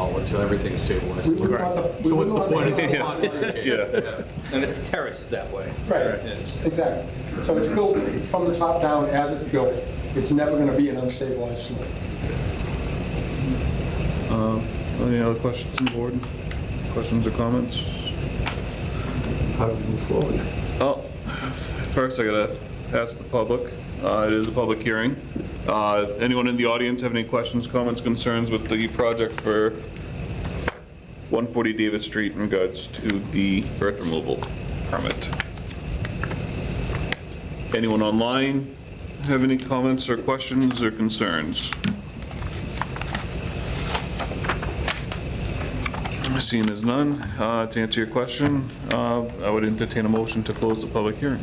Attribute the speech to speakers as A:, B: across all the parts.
A: until everything's stabilized.
B: We- we want the-
A: So what's the
B: we want
A: point of
B: the-
A: the pond in your case? Yeah.
C: And it's terraced that way.
B: Right,
C: It's-
B: exactly. So it's built from the top down as it's built. It's never going to be an unstabilized slope.
D: Any other questions on board? Questions or comments?
A: How do we move forward?
D: Oh, f- first I gotta ask the public. Uh, It is a public hearing. Uh, Anyone in the audience have any questions, comments, concerns with the project for 140 Davis Street in regards to the earth removal permit? Anyone online have any comments or questions or concerns? Seeing as none, uh, to answer your question, uh, I would entertain a motion to close the public hearing.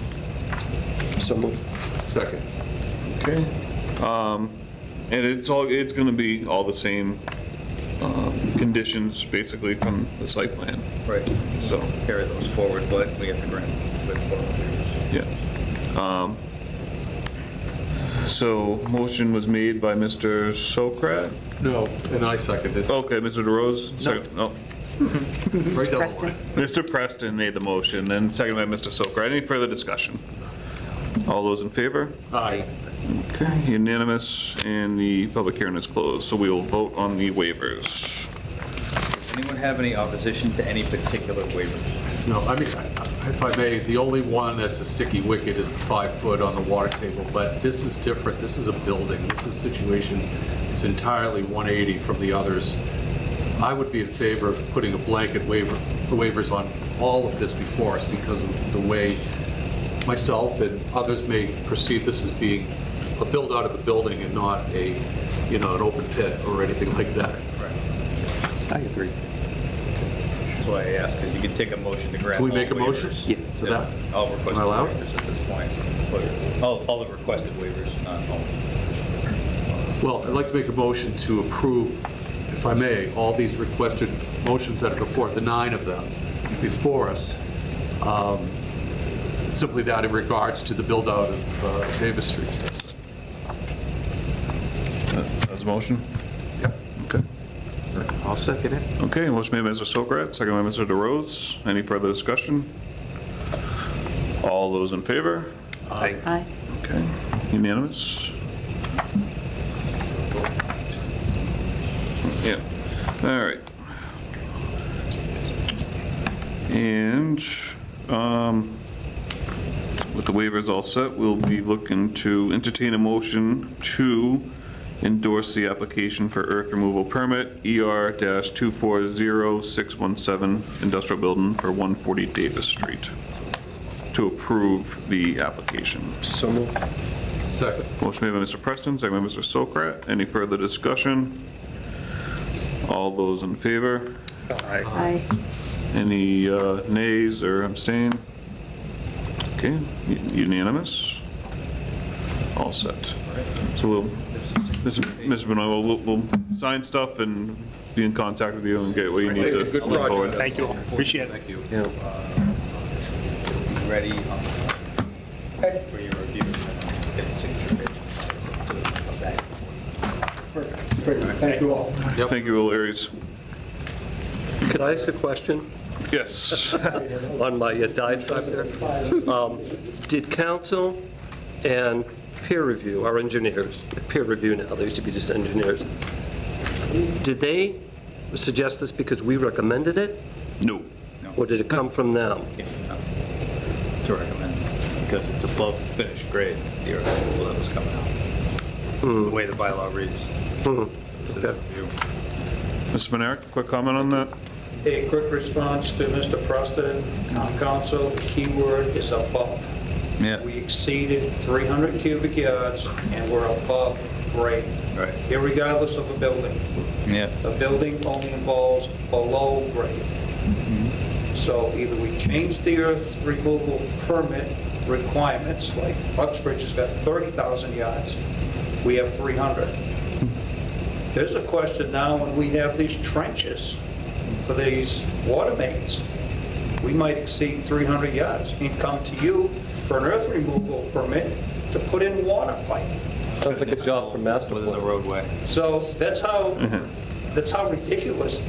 A: Second.
D: Okay. Um, And it's all, it's going to be all the same uh, conditions, basically, from the site plan,
C: Right.
D: so,
C: Carry those forward, but we have to grant. with four waivers.
D: yeah. Um, So motion was made by Mr. Sokrat.
A: No, and I seconded.
D: Okay, Mr. DeRose, second, oh,
A: Right down the
E: Preston.
A: line.
D: Mr. Preston made the motion, and second by Mr. Sokrat. Any further discussion? All those in favor?
A: Aye.
D: Okay, unanimous, and the public hearing is closed, so we will vote on the waivers.
C: Does anyone have any opposition to any particular waivers?
A: No, I mean, I- I- if I may, the only one that's a sticky wicket is the five foot on the water table, but this is different. This is a building. This is a situation, it's entirely 180 from the others. I would be in favor of putting a blanket waiver, waivers on all of this before us because of the way myself and others may perceive this as being a build out of a building and not a, you know, an open pit or anything like that.
F: I agree.
C: That's why I asked, because you could take a motion to grant.
A: Can we
C: all
A: make a motion
C: waivers.
F: Yeah,
A: to that?
C: All
A: Am I
C: requested
A: allowed?
C: waivers at this point. All, all the requested waivers, not all.
A: Well, I'd like to make a motion to approve, if I may, all these requested motions that are before, the nine of them before us, um, simply that in regards to the build-out of uh, Davis Street.
D: That's a motion? Yep. Okay.
F: I'll second it.
D: Okay, motion made by Mr. Sokrat, second by Mr. DeRose. Any further discussion? All those in favor?
E: Aye.
D: Okay, unanimous? Yeah, all right. And um, with the waivers all set, we'll be looking to entertain a motion to endorse the application for earth removal permit E ER-240617 Industrial Building for 140 Davis Street, to approve the application.
F: So moved.
A: Second.
D: Motion made by Mr. Preston, second by Mr. Sokrat. Any further discussion? All those in favor?
E: Aye.
D: Any uh, nays or abstain? Okay, u- unanimous? All set. So we'll, Mr. Mr. Benoit, we'll, we'll sign stuff and be in contact with you and get what you need to
A: Good
D: look forward.
A: project.
G: Thank you all. Appreciate it.
A: Thank you.
C: Uh, Ready on- for your review. Get the signature page.
B: Great, thank you all.
A: Yep.
D: Thank you, Will Aries.
H: Could I ask a question
D: Yes.
H: on my uh, diatribe there? Um, Did council and peer review, our engineers, peer review now, they used to be just engineers, did they suggest this because we recommended it,
D: No.
H: or did it come from them?
C: To recommend, because it's above finished grade, the earth removal that was coming out. The way the bylaw reads. So
H: Okay.
C: review.
D: Mr. Menard, quick comment on that?
I: A quick response to Mr. Preston, town council, the key word is above.
C: Yeah.
I: We exceeded 300 cubic yards and we're above grade.
C: Right.
I: Irregardless of a building.
C: Yeah.
I: The building only involves below grade. So either we change the earth removal permit requirements, like Uxbridge has got 30,000 yards, we have 300. There's a question now, when we have these trenches for these water mains, we might exceed 300 yards and come to you for an earth removal permit to put in water pipe.
H: Sounds like a job for master plan.
C: Within the roadway.
I: So that's how, that's how ridiculous